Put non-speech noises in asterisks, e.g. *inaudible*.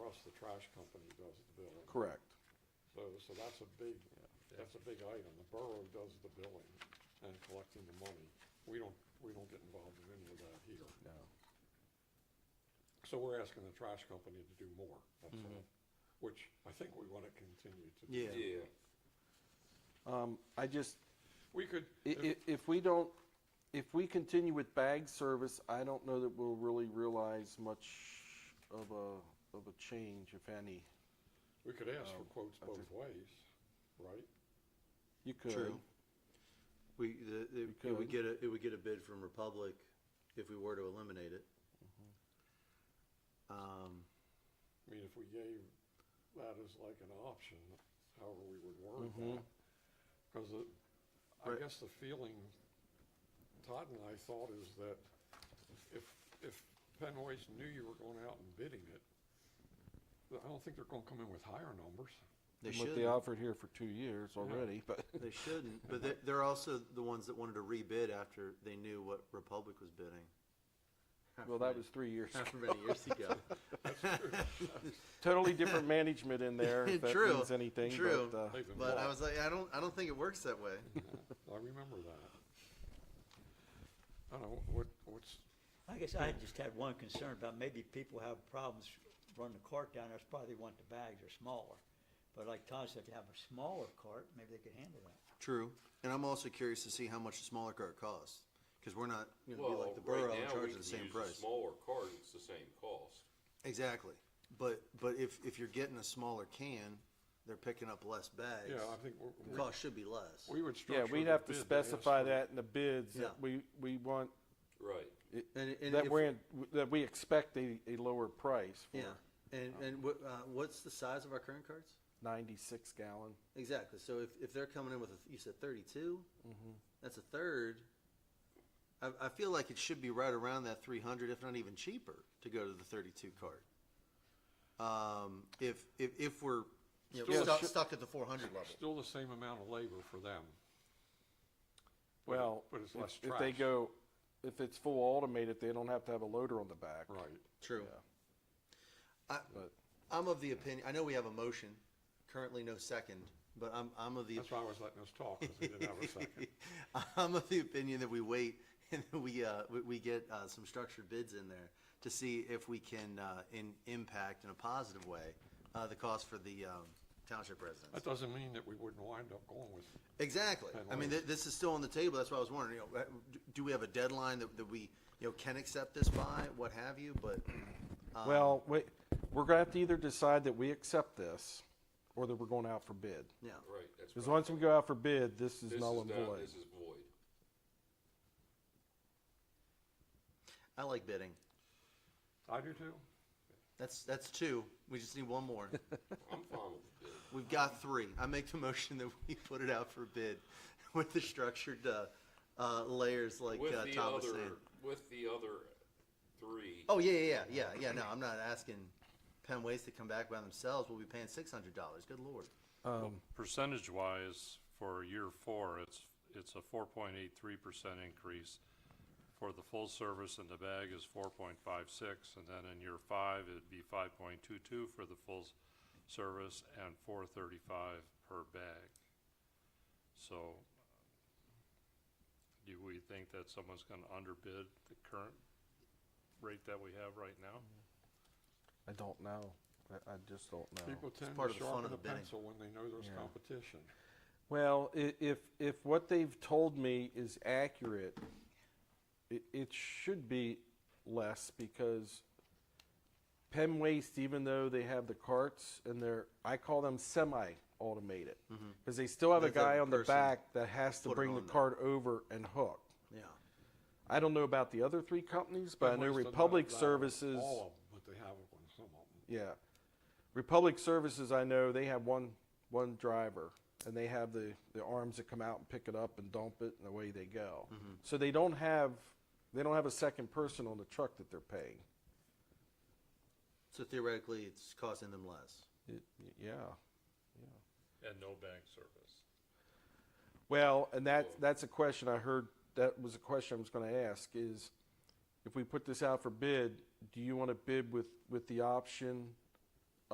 the trash company does the billing. Correct. So, so that's a big, that's a big item. The borough does the billing and collecting the money. We don't, we don't get involved in any of that here. No. So we're asking the trash company to do more, that's all, which I think we want to continue to do. Mm-hmm. Yeah. Um, I just, We could, i- if- i- if we don't, if we continue with bag service, I don't know that we'll really realize much of a, of a change, if any. we could ask for Um, quotes I both ways, right? You could, True. We, the, the- We it would could. get a, it would get a bid from Republic if we were to eliminate it. Um, I mean, if we gave that as like an option, however we would word Mhm. that. Because I Mm-hmm. Right. guess the feeling Todd and I thought is that if, if Penn Waste knew you were going out and bidding it, I don't think they're gonna come in with higher numbers. They and what they shouldn't. offered here for two years already, *laughs* but, They shouldn't, but they're, they're also the ones that wanted to rebid after they knew what Republic was bidding. well, that was three years. *laughs* How many years ago? *laughs* Totally different management in there, if that True, means anything, true. but, uh, They've been *laughs* But I bought. *laughs* was like, I don't, I don't think it works that way. I remember that. I don't know, what, what's, I guess I just had one concern about maybe people have problems running the cart down, that's probably want the bags are smaller. But like Todd said, if you have a smaller cart, maybe they could handle that. True. And I'm also curious to see how much the smaller car costs, because we're not gonna be Well, like the borough right and now, we charge can the use same a price. smaller card, it's the same cost. Exactly. But, but if, if you're getting a smaller can, they're picking up less bags. yeah, I think we're- The cost should be less. we, we would yeah, structure. we'd the have to bid ask specify for- that in the bids, that Yeah. we, we want, Right. And, and that if- we're, in that we expect a, a lower price Yeah, for and, and what, uh, what's the size of our current carts? ninety-six gallon. Exactly, so if, if they're coming in with, a you said thirty-two? Mm-hmm. That's a third. I, I feel like it should be right around that three hundred, if not even cheaper, to go to the thirty-two cart. Um, if, if, if we're, you know, Still stuck, should- stuck at the four hundred level. Still the same amount of labor for them. But it- Well, But it's if- less trash. if they go, if it's full automated, they don't have to have a loader on the back. Right. True. Yeah. I, But I'm of the opinion, I know we have a motion, currently no second, but I'm, I'm of the That's why I was letting us talk, because we didn't have a *laughs* second. I'm of the opinion that we wait *laughs* and that we, uh, we, we get, uh, some structured bids in there to see if we can, uh, in, impact in a positive way, uh, the cost for the, um, township That residents. doesn't mean that we wouldn't wind up going with, Exactly. I mean, th- this is still on the table. That's why I was wondering, you know, uh, do- do we have a deadline that, that we, you know, can accept this by, what have you, but, um, Well, we, we're gonna have to either decide that we accept this, or that we're going out for bid. yeah. Right, that's Because right. once we go out for bid, this is This null and down- void. This is void. I like bidding. I do too. That's, that's two. We just need one more. I'm fine with the bid. We've got three. I make the motion that we put it out for bid *laughs* with the structured uh, uh, layers *laughs* like With uh, the Tom was other- saying. With the other three, Oh yeah, yeah, yeah, yeah, yeah. No, I'm not asking Penn Waste to come back by themselves. We'll be paying six hundred dollars. Good lord. Percentage wise, for year four, it's, it's a four point eight three percent increase. For the full service and the bag is four point five six, and then in year five, it'd be five point two two for the full s- service and four thirty-five per bag. So, do we think that someone's gonna underbid the current rate that we have right now? I don't know. I, I just don't know. People tend part to of the fun sharpen of the the bidding. pencil when they know there's Yeah. competition. Well, i- if, if what they've told me is accurate, it, it should be less because Penn Waste, even though they have the carts and they're, I call them semi-automated. Because they still have a They have guy on the person back that has to put it bring the on there. cart over and hook. Yeah. I don't know about the other three companies, but I Waste know doesn't have Republic that on Services. All of them, but they have it on some of them. Yeah. Republic Services, I know, they have one, one driver, and they have the, the arms that come out and pick it up and dump it, and away they go. So they don't have, they don't have a second person on the truck that they're paying. So theoretically, it's costing them less. It, yeah. Oh. And no bag service. Well, and that, that's a question I heard, that was a question I was gonna ask, is if we put this out for bid, do you wanna bid with, with the option